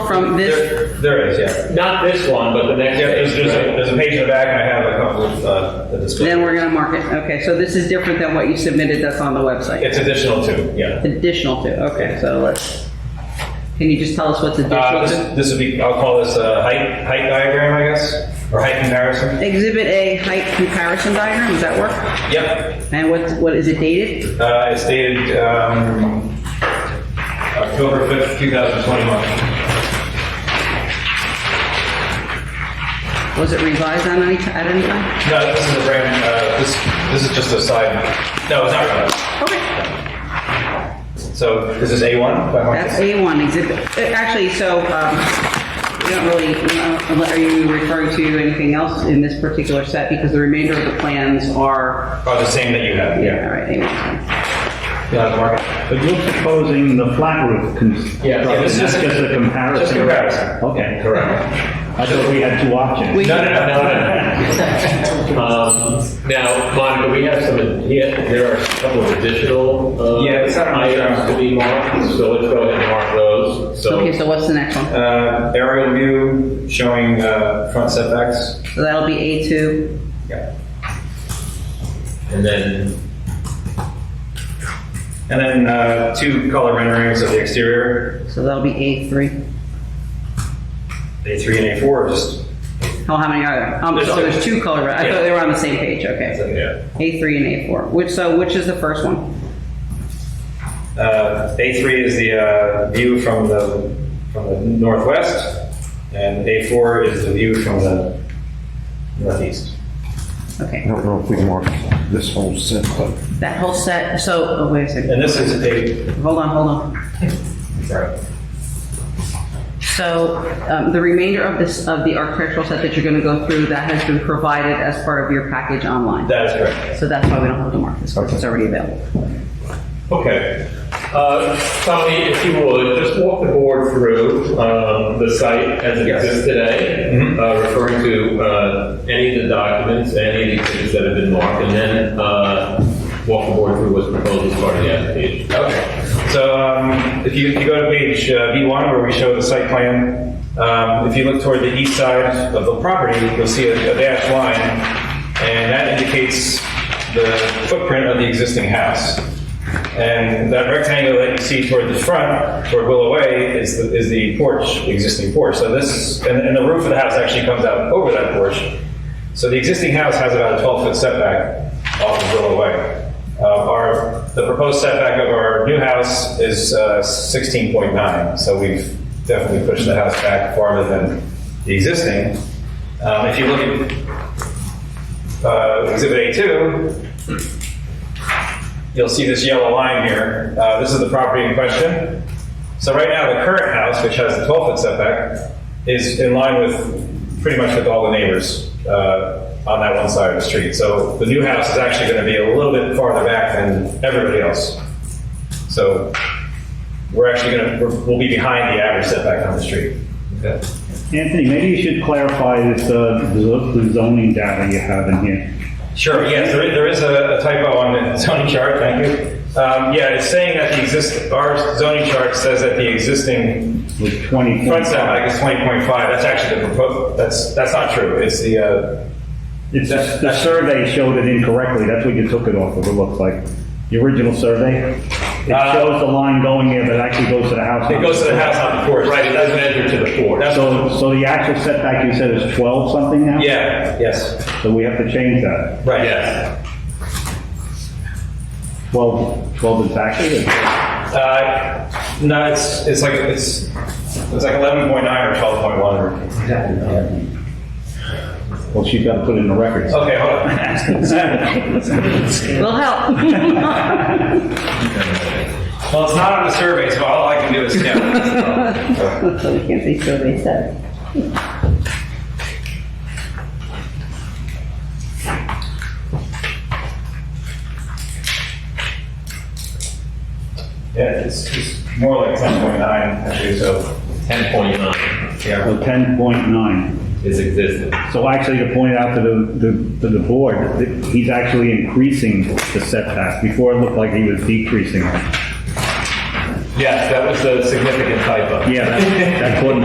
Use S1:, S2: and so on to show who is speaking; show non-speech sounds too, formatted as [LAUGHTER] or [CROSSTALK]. S1: from this,
S2: There, there is, yeah.
S3: Not this one, but the next
S2: Yeah, there's,
S3: page.
S2: there's a, there's a page in the back, and I have a couple of, uh, the display.
S1: then we're gonna mark it. Okay, so this is different than what you submitted that's on the website.
S2: It's additional too, yeah.
S1: Additional to, okay, so let's, can you just tell us what's
S2: Uh,
S1: additional to?
S2: this, this would be, I'll call this a height, height diagram, I guess, or height comparison.
S1: Exhibit A height comparison diagram, does that work?
S2: Yep,
S1: And what, what, is it dated?
S2: uh, it's dated, um, October fifth, two thousand twenty-one.
S1: Was it revised on any, at any time?
S2: No, this is a brand, uh, this, this is just a side, no, it's not right.
S1: Okay.
S2: So, this is A one?
S1: That's A1 exhibit. uh, Actually, so, um, we don't really, we don't- are you referring to anything else in this particular set? Because the remainder of the plans are,
S2: Oh, the same that you have,
S1: yeah,
S2: yeah.
S1: all right, A1.
S2: Yeah, the market.
S4: But you're proposing the flat roof
S2: Yeah,
S4: construction,
S2: yeah, this
S4: that's just
S2: is-
S4: a comparison.
S2: just comparison.
S4: Okay.
S2: Correct.
S4: I thought we had two options.
S1: We-
S2: No, no, no, no, no, no. [LAUGHS]
S3: Um, Now, Monica, we have some, yeah, there are a couple of additional uh,
S2: Yeah, it's not on the
S3: items
S2: drawing.
S3: to be marked, so let's go ahead and mark those.
S1: Okay,
S3: So
S1: so what's the next one?
S2: Uh, aerial view showing, uh, front setbacks.
S1: So that'll be A2.
S2: Yeah.
S3: And then,
S2: And then uh, two color renderings of the exterior,
S1: So that'll be A3.
S2: A3 and A4, just,
S1: Oh, how many are there? Um,
S2: There's
S1: so
S2: two.
S1: there's two color, I
S2: Yeah.
S1: thought they were on the same page, okay.
S2: yeah.
S1: A3 and A4. Which, so which is the first one?
S2: Uh, A3 is the uh, view from the, from the northwest, and A4 is the view from the northeast.
S5: I
S1: Okay,
S5: don't know if we marked this whole set, but
S1: that whole set, so, oh, wait a second,
S2: And this is a,
S1: hold on, hold on.
S2: sorry,
S1: So um, the remainder of this, of the architectural set that you're going to go through, that has been provided as part of your package online.
S2: that is correct.
S1: So that's why we don't have to mark this, because it's already available.
S3: okay. Uh, Tommy, if you would, just walk the board through um, the site as it
S2: Yes.
S3: exists today,
S2: Mhm.
S3: uh, referring to uh, any of the documents, any of the things that have been marked, and then uh, walk the board through what's proposed as part of the application.
S2: Okay, so um, if you, if you go to page uh, B1 where we show the site plan, um, if you look toward the east side of the property, you'll see a a dashed line, and that indicates the footprint of the existing house. And that rectangle that you see toward the front, toward Willow Way, is the, is the porch, existing porch. So this, and, and the roof of the house actually comes out over that porch. So the existing house has about a 12-foot setback off of Willow Way. Uh, Our, the proposed setback of our new house is uh, 16.9, so we've definitely pushed the house back farther than the existing. Um, If you look at uh, Exhibit A2, you'll see this yellow line here. Uh, This is the property in question. So right now, the current house, which has the 12-foot setback, is in line with, pretty much with all the neighbors uh, on that one side of the street. So the new house is actually going to be a little bit farther back than everybody else. So we're actually going to, we'll be behind the average setback on the street. Okay.
S4: Anthony, maybe you should clarify this, uh, the the zoning data you have in here.
S2: Sure, yes, there is, there is a a typo on the [LAUGHS] zoning chart, thank you. Um, Yeah, it's saying that the exist, our zoning chart says that the existing
S4: With 20.
S2: front setback is 20.5. That's actually the proposed, that's, that's not true. It's the, uh,
S4: It's, the survey showed it incorrectly, that's what you took it off of, it looks like. The original survey,
S2: Uh,
S4: it shows the line going there, but it actually goes to the house.
S2: it goes to the house on the porch.
S3: Right, it doesn't enter to the board.
S2: That's-
S4: So, so the actual setback you said is 12 something now?
S2: Yeah, yes,
S4: So we have to change that.
S2: right, yeah.
S3: Yes.
S4: 12, 12 exactly? or-
S2: Uh, no, it's, it's like, it's, it's like 11.9 or 12.1.
S4: Well, she's got to put it in the records.
S2: Okay, hold on.
S1: Will [LAUGHS] help.
S2: Well, it's not on the survey, so all I can do is stamp it.
S1: So we can't say survey set.
S2: Yeah, it's, it's more like 10.9, actually, so,
S3: 10.9
S2: yeah.
S4: So 10.9.
S3: is existing.
S4: So actually, to point out to the, the- to the board, that he's actually increasing the setback. Before, it looked like he was decreasing. it.
S3: Yes, that was a significant typo.
S4: Yeah, that that caught